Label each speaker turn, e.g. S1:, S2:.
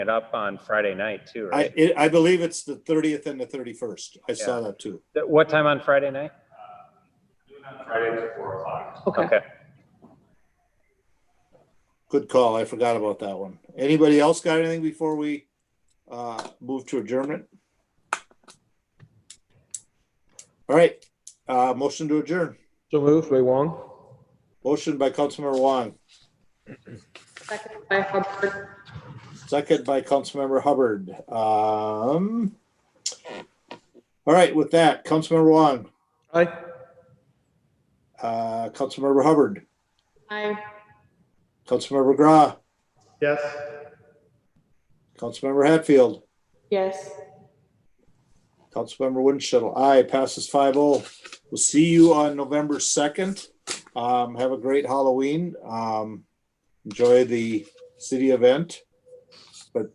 S1: it up on Friday night too,
S2: I,
S1: right?
S2: it- I believe it's the thirtieth and the thirty-first. I saw that too.
S1: Th- What time on Friday night?
S3: Uh, Friday to four o'clock.
S4: Okay.
S1: Okay,
S2: Good call. I forgot about that one. Anybody else got anything before we uh, move to adjournment? All right, uh, motion to adjourn.
S5: So moved by Wong.
S2: Motion by Councilmember Wong,
S4: Second by Hubbard.
S2: second by Councilmember Hubbard. Um, all right, with that, Councilmember Wong,
S5: Aye.
S2: uh, Councilmember Hubbard,
S4: Aye.
S2: Councilmember Gra,
S3: Yes.
S2: Councilmember Hatfield,
S4: Yes.
S2: Councilmember Winchell, aye, passes 5-0. oh. We'll see you on November second. Um, have a great Halloween. Um, enjoy the city event.